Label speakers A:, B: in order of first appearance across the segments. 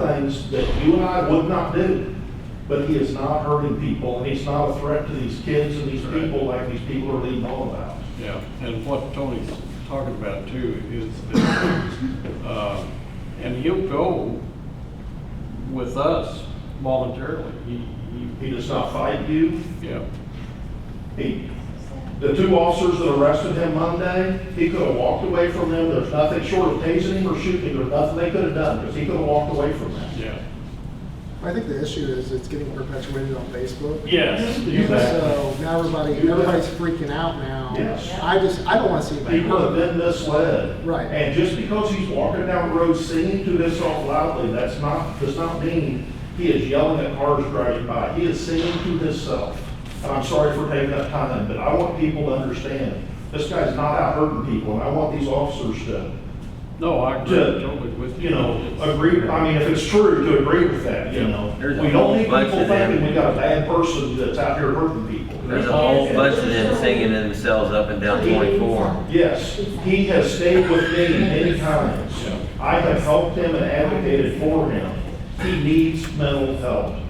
A: things that you and I would not do, but he is not hurting people, and he's not a threat to these kids and these people like these people are leading on about.
B: Yeah, and what Tony's talking about too is that, uh, and he'll go with us voluntarily. He, he,
A: He does not fight you.
B: yeah,
A: He, the two officers that arrested him Monday, he could have walked away from them. There's nothing short of tasing him or shooting him, there's nothing they could have done, because he could have walked away from them.
B: yeah.
C: I think the issue is it's getting perpetuated on Facebook.
B: Yes.
A: You bet.
C: So now everybody,
A: You bet.
C: everybody's freaking out now.
A: Yes.
C: I just, I don't want to see anybody.
A: People have been misled.
C: Right.
A: And just because he's walking down the road singing to this song loudly, that's not, does not mean he is yelling at cars driving by. He is singing to himself. And I'm sorry for taking up time, but I want people to understand, this guy's not out hurting people, and I want these officers to,
B: No, I agree totally
A: to,
B: with you.
A: you know, agree, I mean, if it's true, to agree with that, you know?
D: There's a
A: We don't need
D: whole bunch
A: people
D: of them.
A: thinking we got a bad person that's out here hurting people.
D: There's a whole bunch of them singing themselves up and down 24.
A: Yes, he has stayed with me many times. I have helped him and advocated for him. He needs mental help.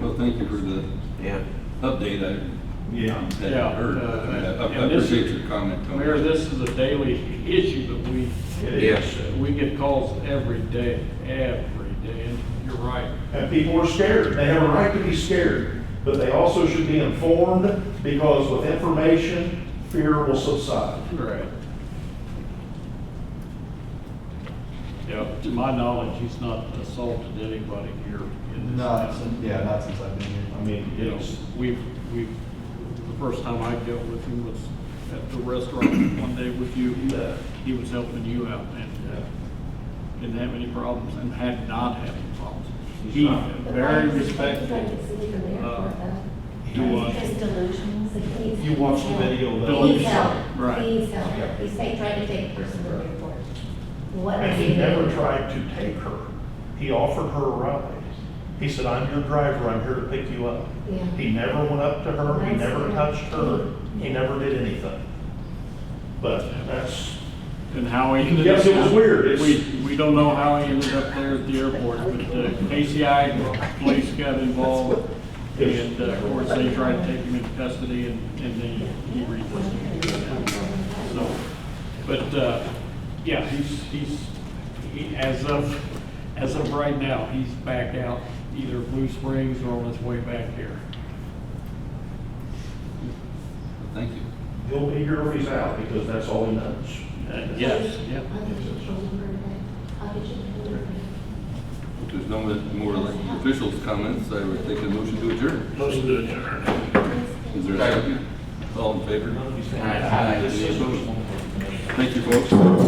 E: Well, thank you for the
D: Yeah.
E: update. I
A: Yeah.
E: hadn't
B: Yeah,
E: heard.
B: uh,
E: I I
B: and this-
E: appreciate your comment, Tony.
B: Mayor, this is a daily issue that we,
A: It
D: Yes.
A: is.
B: we get calls every day, every day, and you're right.
A: And people are scared. They have a right to be scared, but they also should be informed because with information, fear will subside.
B: Right. Yeah, to my knowledge, he's not assaulted anybody here in this
F: Not,
B: town.
F: since- yeah, not since I've been here.
A: I mean,
B: You know,
A: it's,
B: we've, we've, the first time I dealt with him was at the restaurant one day with you. He was helping you out and uh, didn't have any problems and had not had any problems. He, very respectful. He was,
G: His delusions.
F: You watched the video, though.
G: He's help,
B: Right.
G: he's help. He's they tried to take personal report. What
A: and
G: is
A: he
G: he
A: never
G: doing?
A: tried to take her. He offered her a ride. He said, "I'm your driver. I'm here to pick you up."
G: Yeah.
A: He never went up to her, he never touched her, he never did anything. But that's,
B: and how he ended up.
A: Yes, it was weird. It's-
B: We, we don't know how he ended up there at the airport, but uh, KCI police got involved. And uh, of course, they tried to take him into custody and, and then he re So, but, uh, yeah, he's, he's, he, as of, as of right now, he's back out either Blue Springs or on his way back here.
E: Thank you.
A: he'll be here if he's out, because that's all he knows.
B: Yes, yeah.
G: How did you deliver that? How did you deliver that?
E: If there's no more elected officials' comments, I would take a motion to adjourn.
B: Motion to
E: Is there a second? All in favor?
A: He's-
E: Thank you, folks.